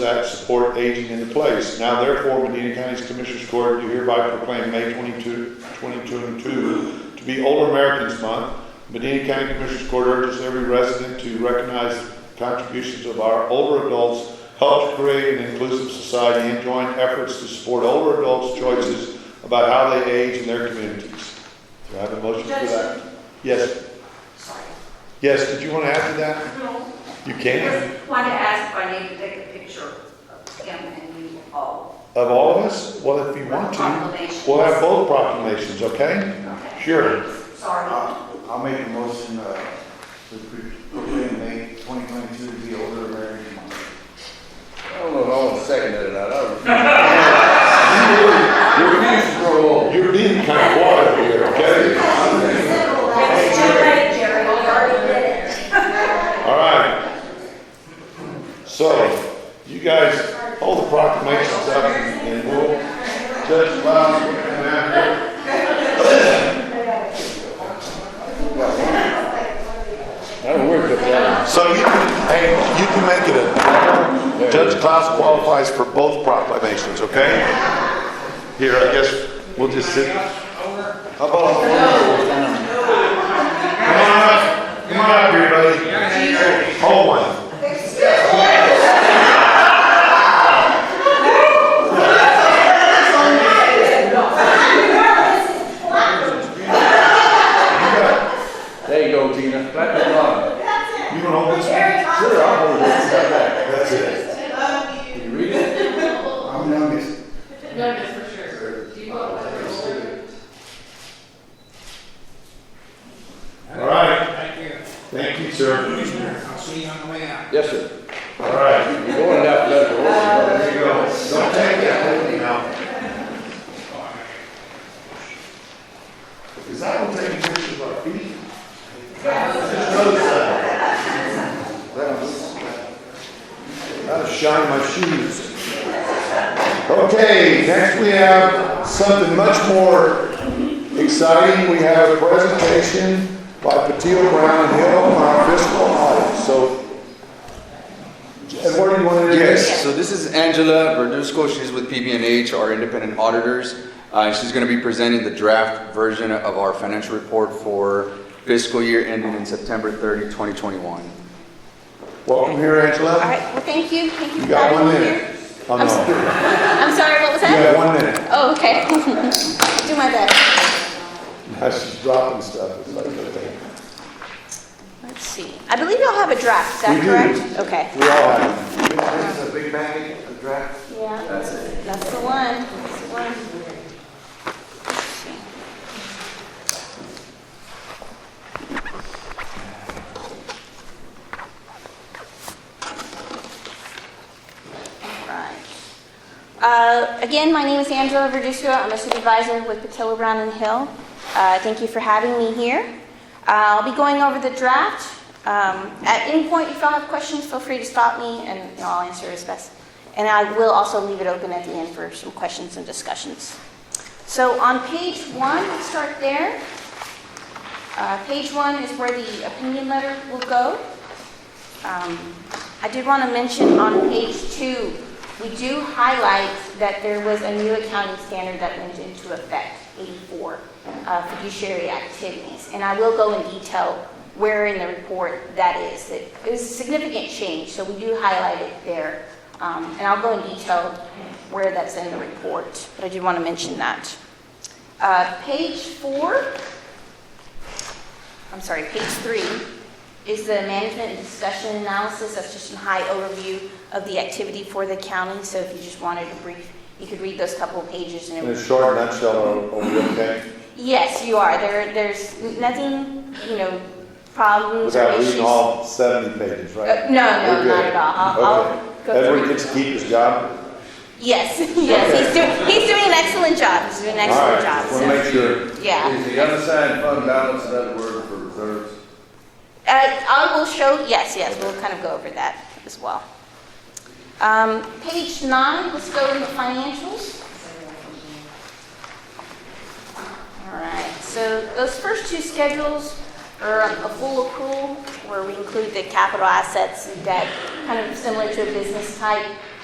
Act support aging into place. Now therefore, Medina County's Commissioners Court, do hereby proclaim May 22, 2022 to be Older Americans Month. Medina County Commissioners Court urges every resident to recognize contributions of our older adults, help to create an inclusive society, and join efforts to support older adults' choices about how they age in their communities. Do I have a motion for that? Yes, Sorry. yes, did you want to add to that? No, You I can, just wanted to ask if I need to take a picture of him and you all. of all of us? Well, if you want to. Proclamation. We'll have both proclamations, okay? Okay. Sure. Sorry. I'll I'll make a motion uh, to pre- proclaim May 2022 to be Older American Month. I don't know if I want to second it or not. I refuse to grow old. You're being kind of water here, okay? It's too late, Jerry, we already did it. All right. So, you guys hold the proclamations up and we'll judge by and after. I don't work with that. So you can, hey, you can make it a, Judge Klaus qualifies for both proclamations, okay? Here, I guess we'll just sit. How about on Come on up, come on up here, buddy. Hold one. There you go, Tina. Clap it on. You don't hold this? Sure, I'll hold it. Step back. That's it. Can you read it? I'm youngest. All right. Thank you. Thank you, sir. Commissioner, I'll see you on the way out. Yes, sir. All right. You're going down to that road. There you go. Don't take that with me now. Because I don't take pictures of our feet. Just notice that. Gotta shine my shoes. Okay, next we have something much more exciting. We have a presentation by Patil Brown and Hill on our fiscal audit. So, Edward, you want to introduce? Yes, so this is Angela Verduzco, she's with PBNH, our independent auditors. Uh, She's going to be presenting the draft version of our financial report for fiscal year ending in September 30, 2021. Welcome here, All Angela. right, well, thank you, thank you You for got having one me minute. here. Oh, I'm no. sorry. I'm sorry, what was You that? got one minute. Oh, okay. Do my best. Now she's dropping stuff. It's like, okay. Let's see, I believe y'all have a draft, is that We do. correct? Okay. We all have. This is a big bag, a draft. Yeah. That's it. That's the one, that's the one. Let's see. All right. Uh, Again, my name is Angela Verduccio. I'm a supervisor with Patillo Brown and Hill. Uh, Thank you for having me here. Uh, I'll be going over the draft. Um, At any point, if y'all have questions, feel free to stop me, and you know, I'll answer as best. And I will also leave it open at the end for some questions and discussions. So on page one, let's start there. Uh, Page one is where the opinion letter will go. Um, I did want to mention on page two, we do highlight that there was a new accounting standard that went into effect, 84, uh, fiduciary activities. And I will go in detail where in the report that is. It it was a significant change, so we do highlight it there. Um, And I'll go in detail where that's in the report, but I did want to mention that. Uh, Page four, I'm sorry, page three is the management and discussion analysis. That's just a high overview of the activity for the county. So if you just wanted a brief, you could read those couple of pages and it In would a short nutshell, are are we okay? Yes, you are. There, there's nothing, you know, problems or Without issues. reading all 70 pages, Uh, right? No, We're no, good. not at all. I'll- Okay. I'll go Edward through. gets to keep his job? Yes, yes, he's doing, he's doing an excellent job. He's doing an All right, excellent job. wanna so- make sure. Yeah. Is the unassigned fund balance another word for reserves? Uh, I will show, yes, yes, we'll kind of go over that as well. Um, Page nine, let's go into financials. All right, so those first two schedules are a full accrual where we include the capital assets and debt, kind of similar to a business type.